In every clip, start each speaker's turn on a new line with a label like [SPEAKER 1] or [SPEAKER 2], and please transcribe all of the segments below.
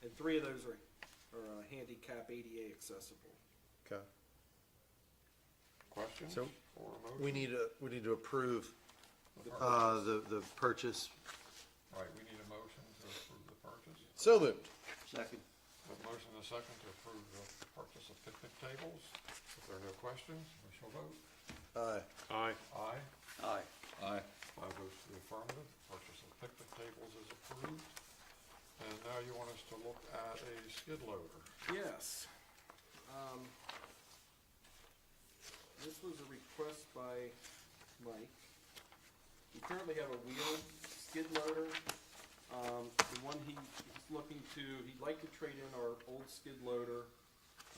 [SPEAKER 1] And three of those are, are uh, handicap ADA accessible.
[SPEAKER 2] Okay,
[SPEAKER 3] Questions
[SPEAKER 2] So,
[SPEAKER 3] or a
[SPEAKER 2] we
[SPEAKER 3] motion?
[SPEAKER 2] need to, we need to approve,
[SPEAKER 3] The
[SPEAKER 2] uh, the, the purchase.
[SPEAKER 3] Right, we need a motion to approve the purchase.
[SPEAKER 2] So moved.
[SPEAKER 4] Second.
[SPEAKER 3] A motion and a second to approve the purchase of picnic tables. If there are no questions, we shall vote.
[SPEAKER 2] Aye.
[SPEAKER 5] Aye.
[SPEAKER 3] Aye.
[SPEAKER 4] Aye.
[SPEAKER 2] Aye.
[SPEAKER 3] My vote's to the affirmative. Purchase of picnic tables is approved. And now you want us to look at a skid loader.
[SPEAKER 1] Yes. Um, This was a request by Mike. We currently have a wheeled skid loader. Um, The one he- he's looking to, he'd like to trade in our old skid loader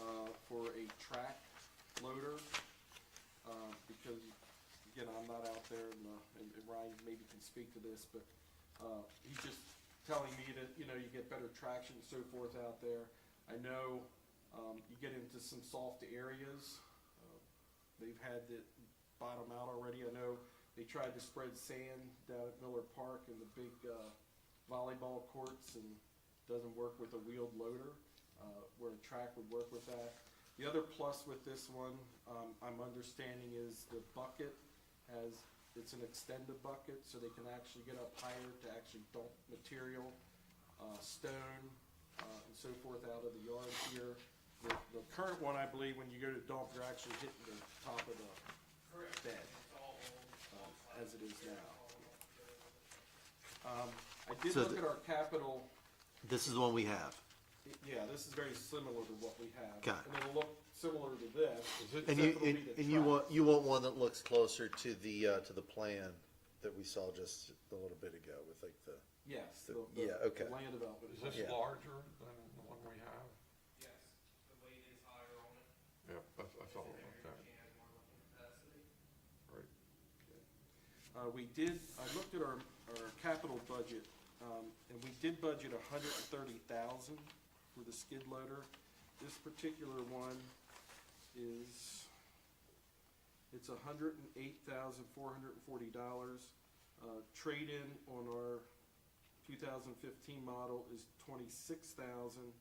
[SPEAKER 1] uh, for a track loader. uh, Because, again, I'm not out there and, uh, and and Ryan maybe can speak to this, but uh, he's just telling me that, you know, you get better traction and so forth out there. I know um, you get into some soft areas. uh, They've had it bottom out already. I know they tried to spread sand down at Miller Park and the big uh, volleyball courts and doesn't work with a wheeled loader, uh, where a track would work with that. The other plus with this one, um, I'm understanding is the bucket has, it's an extended bucket, so they can actually get up higher to actually dump material, uh, stone, uh, and so forth out of the yard here. The, the current one, I believe, when you go to dump, you're actually hitting the top of the bed, uh, as it is now. Um, I did
[SPEAKER 2] So
[SPEAKER 1] look
[SPEAKER 2] the-
[SPEAKER 1] at our capital,
[SPEAKER 2] This is the one we have.
[SPEAKER 1] yeah, this is very similar to what we have.
[SPEAKER 2] Got it.
[SPEAKER 1] And it'll look similar to this.
[SPEAKER 3] Is it,
[SPEAKER 1] Except
[SPEAKER 2] And you,
[SPEAKER 1] it'll be
[SPEAKER 2] and
[SPEAKER 1] the
[SPEAKER 2] and you
[SPEAKER 1] track.
[SPEAKER 2] want, you want one that looks closer to the, uh, to the plan that we saw just a little bit ago with like the,
[SPEAKER 1] Yes.
[SPEAKER 2] So-
[SPEAKER 1] the- the-
[SPEAKER 2] yeah, okay.
[SPEAKER 1] the Land development.
[SPEAKER 3] is this
[SPEAKER 2] Yeah.
[SPEAKER 3] larger than the one we have?
[SPEAKER 6] Yes, the weight is higher on it.
[SPEAKER 3] Yeah, that's, that's all about
[SPEAKER 6] Bigger
[SPEAKER 3] that.
[SPEAKER 6] can, more looking capacity.
[SPEAKER 3] Right.
[SPEAKER 1] Uh, we did, I looked at our, our capital budget, um, and we did budget a hundred and thirty thousand for the skid loader. This particular one is, it's a hundred and eight thousand, four hundred and forty dollars. Uh, trade-in on our two thousand fifteen model is twenty-six thousand,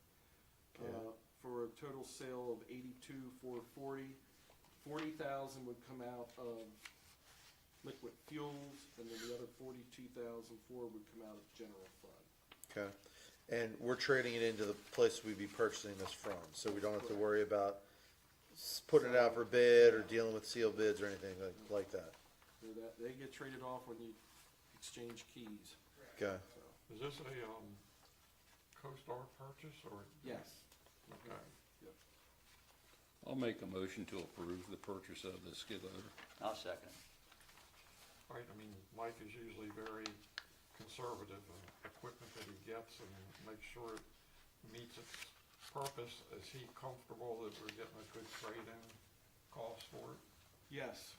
[SPEAKER 2] Yeah.
[SPEAKER 1] uh, for a total sale of eighty-two, four forty. Forty thousand would come out of liquid fuels, and then the other forty-two thousand four would come out of general fund.
[SPEAKER 2] okay? And we're trading it into the place we'd be purchasing this from, so we don't have to worry about s- putting it out for bid or dealing with sealed bids or anything like, like that.
[SPEAKER 1] So that, they get traded off when you exchange keys,
[SPEAKER 2] Okay,
[SPEAKER 1] so,
[SPEAKER 3] Is this a, um, CoStar purchase or?
[SPEAKER 1] yes,
[SPEAKER 3] Okay.
[SPEAKER 1] yep.
[SPEAKER 7] I'll make a motion to approve the purchase of the skid loader.
[SPEAKER 4] I'll second it.
[SPEAKER 3] Right, I mean, Mike is usually very conservative in equipment that he gets and makes sure it meets its purpose. Is he comfortable that we're getting a good trade-in cost for it?
[SPEAKER 1] Yes.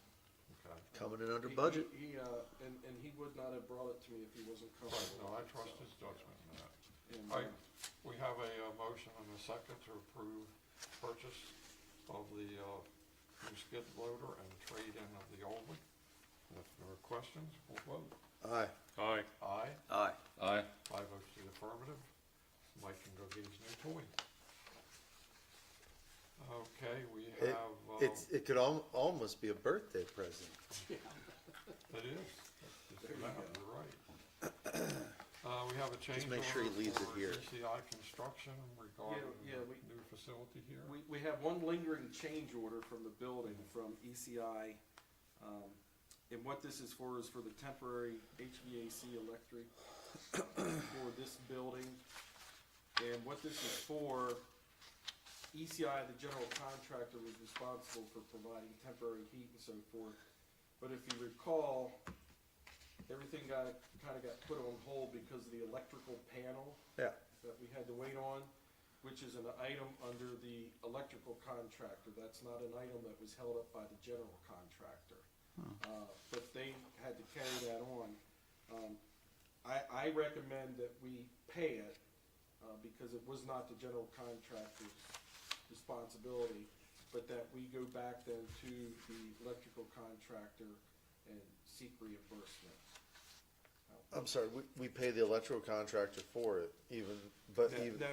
[SPEAKER 3] Okay.
[SPEAKER 2] coming in under
[SPEAKER 1] He-
[SPEAKER 2] budget.
[SPEAKER 1] He, he, uh, and, and he would not have brought it to me if he wasn't
[SPEAKER 3] Right,
[SPEAKER 1] comfortable.
[SPEAKER 3] no, I
[SPEAKER 1] with it,
[SPEAKER 3] trust
[SPEAKER 1] so,
[SPEAKER 3] his judgment in that.
[SPEAKER 1] and,
[SPEAKER 3] All right,
[SPEAKER 1] uh,
[SPEAKER 3] we have a uh, motion and a second to approve purchase of the uh, new skid loader and trade-in of the old one. If there are questions, we'll vote.
[SPEAKER 2] Aye.
[SPEAKER 5] Aye.
[SPEAKER 3] Aye.
[SPEAKER 4] Aye.
[SPEAKER 7] Aye.
[SPEAKER 3] Five votes to the affirmative. Mike can go get his new toy. Okay, we
[SPEAKER 2] It,
[SPEAKER 3] have, uh,
[SPEAKER 2] it's, it could al- almost be a birthday present.
[SPEAKER 3] it is. That's just about- You're right. Uh, We have a change
[SPEAKER 2] make sure he
[SPEAKER 3] order
[SPEAKER 2] leaves it
[SPEAKER 3] for
[SPEAKER 2] here.
[SPEAKER 3] ECI Construction regarding
[SPEAKER 1] Yeah, yeah, we-
[SPEAKER 3] the new facility here.
[SPEAKER 1] We, we have one lingering change order from the building from ECI. um, And what this is for is for the temporary HVAC electric for this building. And what this is for, ECI, the general contractor, was responsible for providing temporary heat and so forth. But if you recall, everything got, kind of got put on hold because of the electrical panel
[SPEAKER 2] Yeah.
[SPEAKER 1] that we had to wait on, which is an item under the electrical contractor. That's not an item that was held up by the general contractor. Uh, But they had to carry that on. Um, I, I recommend that we pay it uh, because it was not the general contractor's responsibility, but that we go back then to the electrical contractor and seek reimbursement.
[SPEAKER 2] I'm sorry, we, we pay the electrical contractor for it even, but
[SPEAKER 1] No,
[SPEAKER 2] even,
[SPEAKER 1] no,